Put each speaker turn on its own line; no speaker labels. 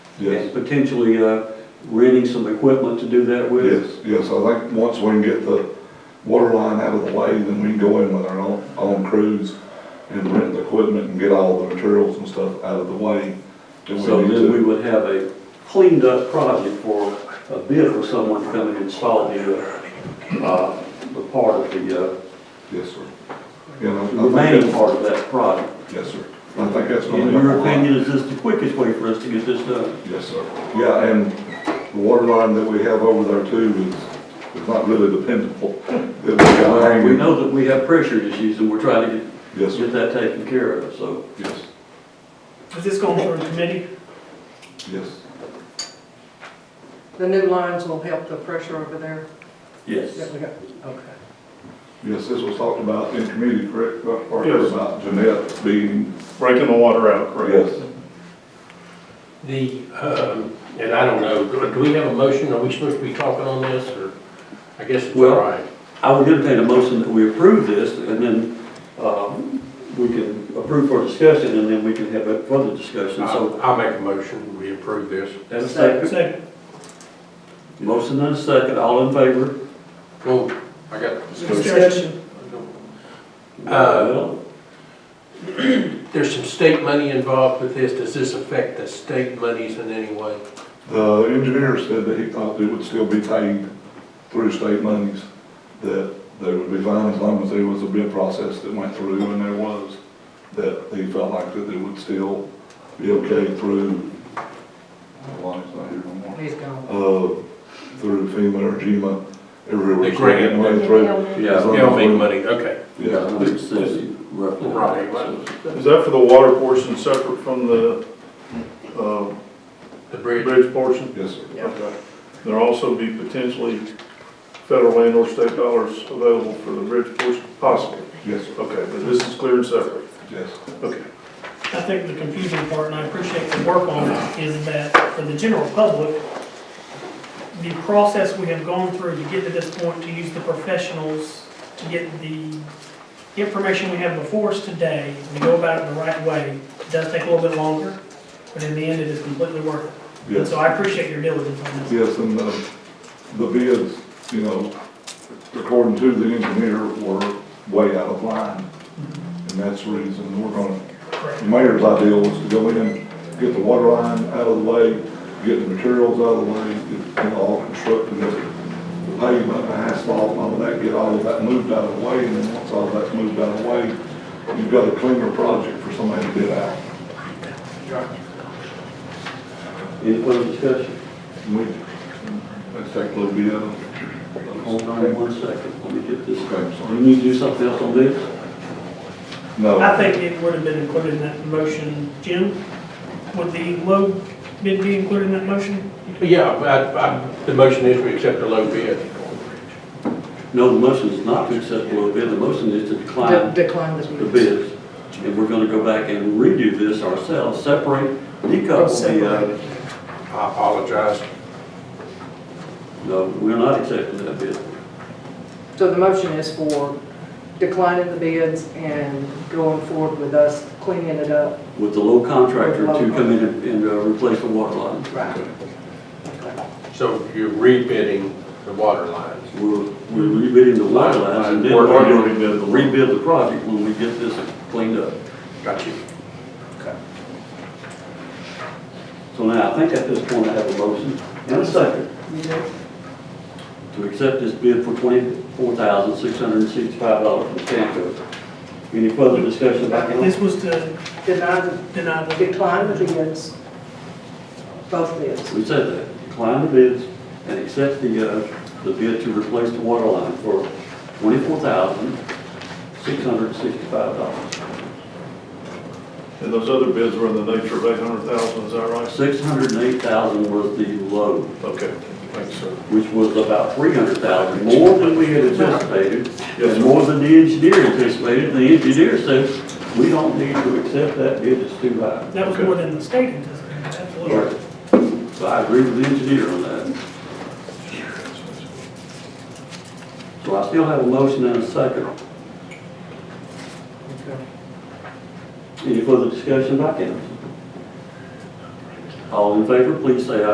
and
Yes,
potentially uh, renting some equipment to do that with.
yes, yes, I think once we can get the water line out of the way, then we can go in with our own, own crews and rent the equipment and get all the materials and stuff out of the way. that we
So
need
then
to.
we would have a cleaned up project for a bid for someone to come and install the, uh, uh, the part of the, uh,
Yes, sir. Yeah, I- I
the
think
remaining
that's-
part of that project.
Yes, sir. I think that's gonna
In
be.
your opinion, is this the quickest way for us to get this done?
Yes, sir. Yeah, and the water line that we have over there too is, is not really dependable. That we got
Well, We
hanging.
know that we have pressure issues and we're trying to get,
Yes, sir.
get that taken care of, so.
Yes,
Is this going through committee?
yes.
The new lines will help the pressure over there
Yes.
that we have, okay.
Yes, this was talked about in committee, correct, Dr. Parker,
Yes.
about Jeanette being,
breaking the water out, correct?
yes.
The, um, and I don't know, do do we have a motion? Are we supposed to be talking on this, or? I guess it's all
Well-
right.
I would entertain a motion that we approve this, and then um, we can approve for discussion, and then we can have a further discussion. So,
I'll I'll make a motion, we approve this.
and a second,
Second.
motion and a second, all in favor?
Oh, I got,
Discussion.
Uh, there's some state money involved with this. Does this affect the state monies in any way?
The engineer said that he thought it would still be paid through state monies, that they would be fine as long as there was a bid process that went through, and there was, that he felt like that it would still be okay through, uh, Lonnie's not here no more,
He's gone.
uh, through FEMA or GMA, everywhere.
The grant.
Way through.
Yeah.
Well,
Yeah, big
we-
money, okay.
Yeah,
Yeah,
hundred and sixty, roughly.
Right.
Is that for the water portion separate from the, uh,
The bridge,
bridge portion?
yes, sir.
Yeah.
Okay. There'll also be potentially federal and or state dollars available for the bridge portion, possibly.
Yes, sir,
Okay, but this is clear and separate.
yes.
Okay.
I think the confusing part, and I appreciate the work on it, is that for the general public, the process we have gone through to get to this point, to use the professionals, to get the information we have before us today, and to go about it the right way, does take a little bit longer, but in the end, it is completely worth it. And
Yes.
so I appreciate your diligence on this.
Yes, and the, uh, the bids, you know, according to the engineer, were way out of line. And that's the reason we're gonna,
Correct.
the mayor's idea was to go in, get the water line out of the way, get the materials out of the way, get it all constructed, the pavement, the asphalt, all of that, get all of that moved out of the way, and then once all of that's moved out of the way, you've got a cleaner project for somebody to bid out.
Any further discussion?
And we, let's take a little bit of.
Hold on one second, let me get this.
Okay, I'm sorry.
You need to do something else on this?
No.
I think it would have been included in that motion. Jim, would the low bid be included in that motion?
yeah, I, I, the motion is we accept the low bid.
No, the motion is not to accept the low bid, the motion is to
De-
decline
Decline this.
the bids. And we're gonna go back and redo this ourselves, separate, decouple the, uh,
I apologize.
no, we're not accepting that bid.
So the motion is for declining the bids and going forward with us cleaning it up.
with the low contractor to come in and- and uh, replace the water line.
Right.
So you're rebidding the water lines.
We're, we're rebidding the water lines and then
We're
we're
gonna
going
rebid
to
the-
rebuild the project when we get this cleaned up.
Got you.
So now, I think at this point I have a motion and a second
You do?
to accept this bid for twenty-four thousand, six hundred and sixty-five dollars from Stanco. Any further discussion about
This
it?
was to
Deny the,
deny the
decline the bids, both bids.
We said that, decline the bids and accept the, uh, the bid to replace the water line for twenty-four thousand, six hundred and sixty-five dollars.
And those other bids were in the nature of eight hundred thousand, is that right?
608,000 was the low,
Okay, thanks, sir.
which was about 300,000, more than we had anticipated,
Yes,
and
sir.
more than the engineer anticipated. The engineer says, we don't need to accept that bid, it's too high.
That was more than the state anticipated, absolutely.
So I agree with the engineer on that. So I still have a motion and a second. Any further discussion by council? All in favor, please say aye.